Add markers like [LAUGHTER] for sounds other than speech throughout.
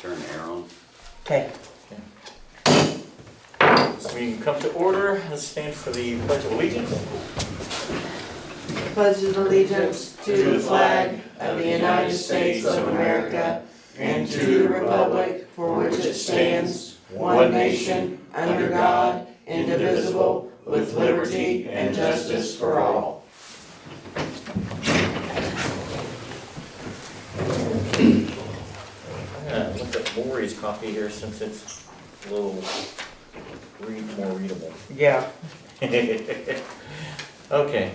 turn the air on. Okay. This meeting come to order. Let's stand for the pledge of allegiance. pledge allegiance to the flag of the United States of America and to the republic for which it stands, one nation, under God, indivisible, with liberty and justice for all. I'm gonna look at Lori's copy here since it's a little read, more readable. [LAUGHS] Yeah, Okay.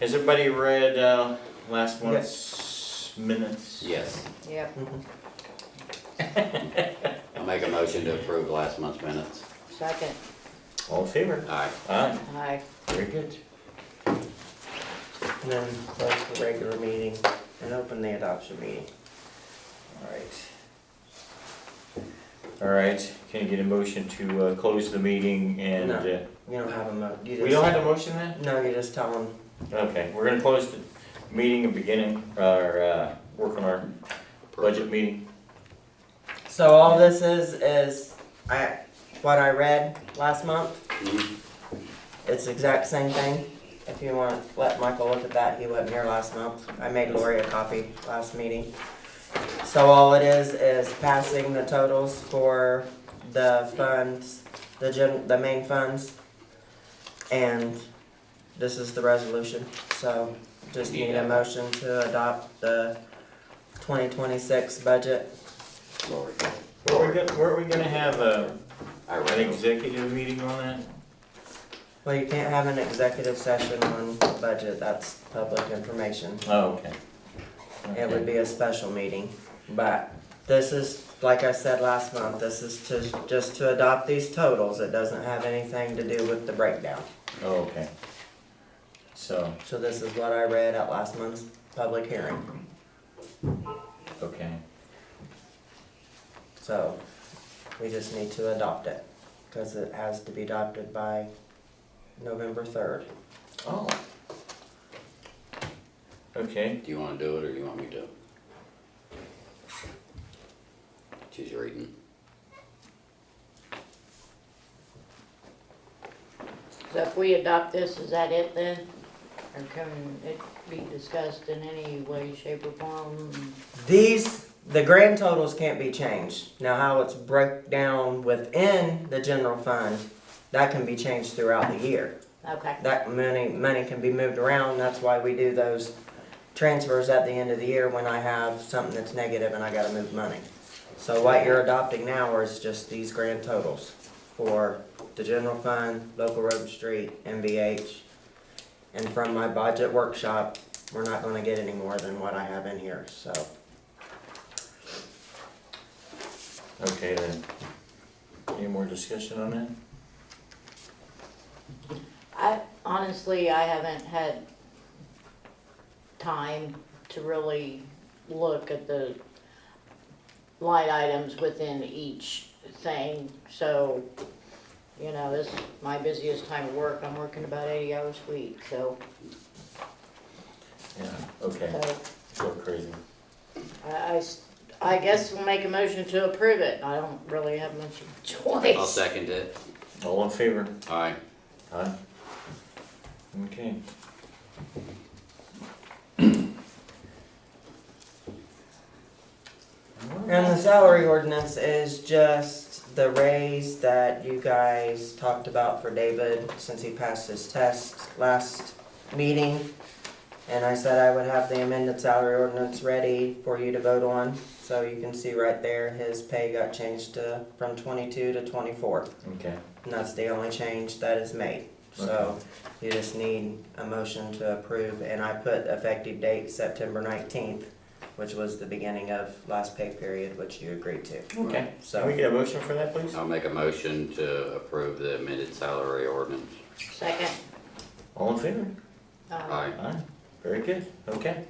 Has everybody read, uh, last month's minutes? Yes. Yep. I'll make a motion to approve last month's minutes. Second. All in favor? Aye. Aye, Aye. very good. and then close the regular meeting and open the adoption meeting. All right. All right, can you get a motion to, uh, close the meeting and, No. uh, You don't have a mo, you just. we don't have a motion then? No, you just tell them, Okay, we're gonna close the meeting and beginning our, uh, work on our budget meeting. so all this is, is I, what I read last month, Mhm. it's the exact same thing. If you want, let Michael look at that, he wasn't here last month, I made Lori a copy last meeting. So all it is, is passing the totals for the funds, the gen, the main funds. And this is the resolution, so just need a motion to adopt the twenty twenty-six budget. Lori. Were we gonna, were we gonna have a, I an read it. executive meeting on that? Well, you can't have an executive session on budget, that's public information. Oh, okay. It would be a special meeting, but this is, like I said last month, this is to, just to adopt these totals. It doesn't have anything to do with the breakdown. Oh, okay. So, So this is what I read at last month's public hearing. okay, So we just need to adopt it, because it has to be adopted by November third. oh. Okay, Do you wanna do it or do you want me to? She's reading. So if we adopt this, is that it then? Or can it be discussed in any way, shape or form? These, the grand totals can't be changed. Now how it's broke down within the general fund, that can be changed throughout the year. Okay, that money, money can be moved around, that's why we do those transfers at the end of the year when I have something that's negative and I gotta move money. So what you're adopting now is just these grand totals for the general fund, local road and street, MVH. And from my budget workshop, we're not gonna get any more than what I have in here, so. okay then. Any more discussion on that? I, honestly, I haven't had time to really look at the light items within each thing, so, you know, this is my busiest time of work, I'm working about eighty hours a week, so, Yeah, okay, so. so crazy. I, I s- I guess we'll make a motion to approve it. I don't really have much choice. I'll second it. All in favor? Aye. Aye. Okay. And the salary ordinance is just the raise that you guys talked about for David since he passed his test last meeting. And I said I would have the amended salary ordinance ready for you to vote on. So you can see right there, his pay got changed to, from twenty-two to twenty-four. Okay, And that's the only change that is made. So you just need a motion to approve. And I put effective date September nineteenth, which was the beginning of last pay period, which you agreed to. okay. Can we So, get a motion for that, please? I'll make a motion to approve the amended salary ordinance. Second. All in favor? um, Aye. Aye. Very good, okay.